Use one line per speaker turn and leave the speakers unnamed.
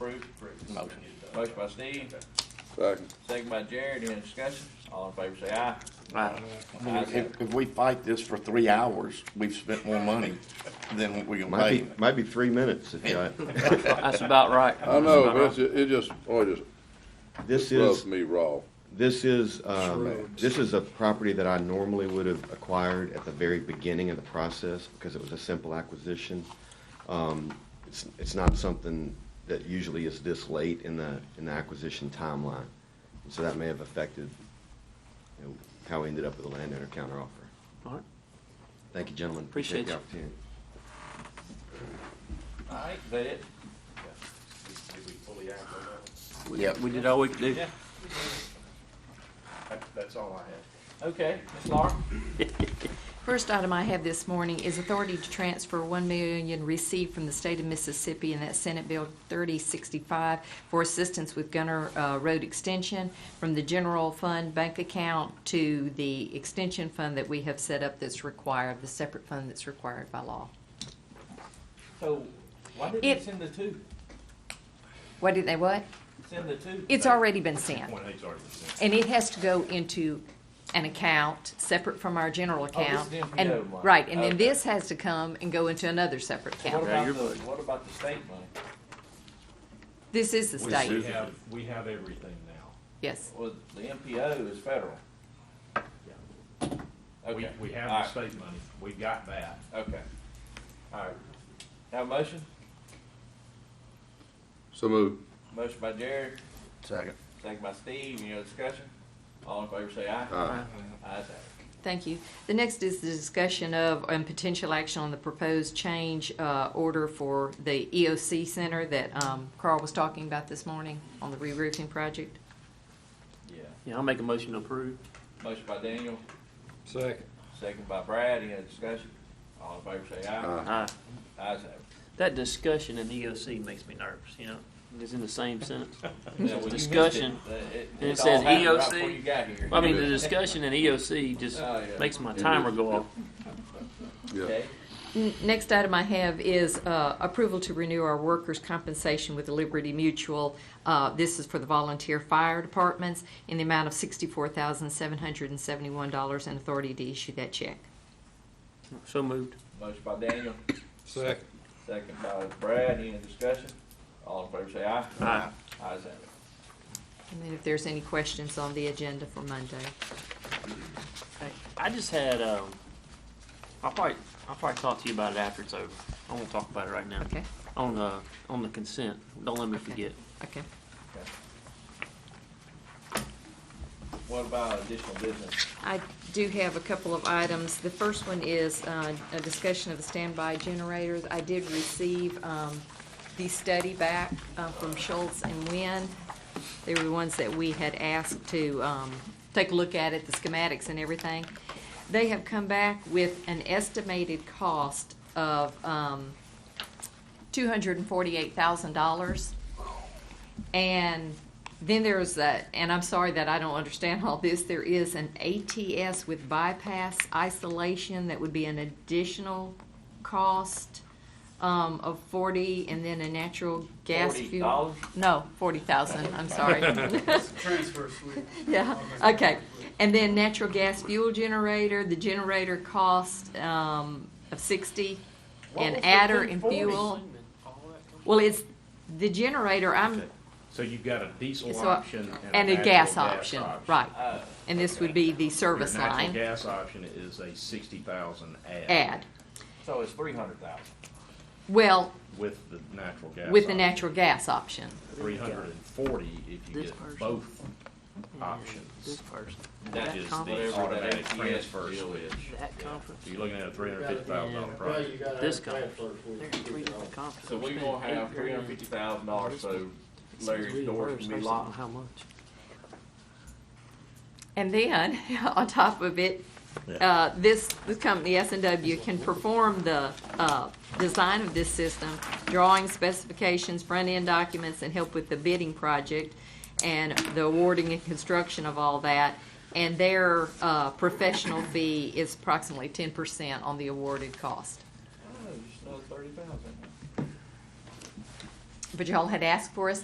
Motion. Motion by Steve,
Second.
second by Jared, any discussion? All in favor say aye.
Right.
I mean, if, if we fight this for three hours, we've spent more money than what we can
Might
pay.
be, might be three minutes if you,
That's about right.
I know, but it's, it just, oh, it
this
just rubs
is,
me raw.
this is, um, this is a property that I normally would have acquired at the very beginning of the process because it was a simple acquisition. Um, It's, it's not something that usually is this late in the, in the acquisition timeline. And So that may have affected, you know, how we ended up with the landowner counteroffer.
All right.
Thank you, gentlemen.
Appreciate
the
you.
opportunity.
Alright, is that it?
Did we fully act on
Yep.
We did all we could do.
Yeah,
that? That- That's all I have.
okay, Ms. Laura?
First item I have this morning is authority to transfer one million received from the state of Mississippi in that Senate Bill thirty sixty-five for assistance with Gunner uh, Road Extension from the general fund bank account to the extension fund that we have set up that's required, the separate fund that's required by law.
So, why didn't
It-
they send the two?
What did they what?
Send the two?
It's already been sent,
One eight's already percent.
and it has to go into an account separate from our general
Oh, this
account.
is the
and-
NPO one.
Right, and
Okay.
then this has to come and go into another separate
What
account.
about the,
you're-
what about the state money?
This is the
We
state,
have, we have everything now.
yes.
Well, the MPO is federal.
We,
Okay.
we have the
Alright,
state money. We got that.
Okay. Alright. Have a motion?
So move.
Motion by Jared,
Second.
second by Steve, any other discussion? All in favor say aye.
Aye.
Ayes have it.
Thank you. The next is the discussion of and potential action on the proposed change uh, order for the EOC Center that um, Carl was talking about this morning on the re-roofing project.
Yeah.
Yeah, I'll make a motion to approve.
Motion by Daniel,
Second.
second by Brad, any other discussion? All in favor say aye.
Aye.
Ayes have it.
Uh, That discussion in the EOC makes me nervous, you know, it's in the same sentence.
Yeah, well, you missed
Discussion.
it. It- it-
And it E
it all
says
happened right
EOC.
before you got here.
I mean, the discussion in EOC just
Oh, yeah.
makes my timer go off.
Yeah.
Okay,
N- Next item I have is uh, approval to renew our workers' compensation with Liberty Mutual. Uh, This is for the volunteer fire departments in the amount of $64,771 and authority to issue that check.
So moved.
motion by Daniel,
Second.
second by Brad, any discussion? All in favor say aye.
Aye.
Ayes have it.
And then if there's any questions on the agenda for Monday.
I just had, um, I'll probably, I'll probably talk to you about it after it's over. I won't talk about it right now.
Okay.
On the, on the consent, don't let me
Okay.
forget.
Okay.
What about additional business?
I do have a couple of items. The first one is uh, a discussion of the standby generators. I did receive um, the study back uh, from Schultz and Wynn. They were the ones that we had asked to um, take a look at it, the schematics and everything. They have come back with an estimated cost of um, $248,000. And then there's a, and I'm sorry that I don't understand all this, there is an ATS with bypass isolation that would be an additional cost um, of forty, and then a natural gas
Forty
fuel.
dollars?
No, forty thousand, I'm sorry.
transfer switch.
Yeah, okay. And then natural gas fuel generator, the generator cost um, of sixty, and adder and fuel. Well, it's, the generator, I'm,
Okay. So you've got a diesel
So, uh,
option
and a
natural
gas option, right.
Uh,
And this would be the service
Your natural
line
gas option is a sixty thousand add.
add.
so it's three hundred thousand.
Well,
With the natural gas.
with the natural gas option.
Three hundred and forty if you
This
get
person.
both
This
options,
person,
That
which is the
conference.
automatic
Whatever that ATS
transfer
deal
switch.
is.
that conference,
So you're looking at a three hundred and fifty thousand dollar
Well,
project.
you gotta
This
have a
conference.
transfer switch.
There are
to
three
get it on.
different conferences.
So we're
There's
gonna
eight
have three hundred fifty thousand dollars, so
It's
Larry's
really
doors
worse
can be
based on
locked.
How much?
And then, on top of it, uh, this, this company, S and W, can perform the, uh, design of this system, drawing specifications, front-end documents, and help with the bidding project and the awarding and construction of all that. And their, uh, professional fee is approximately ten percent on the awarded cost.
Oh, just another thirty thousand.
But y'all had asked for us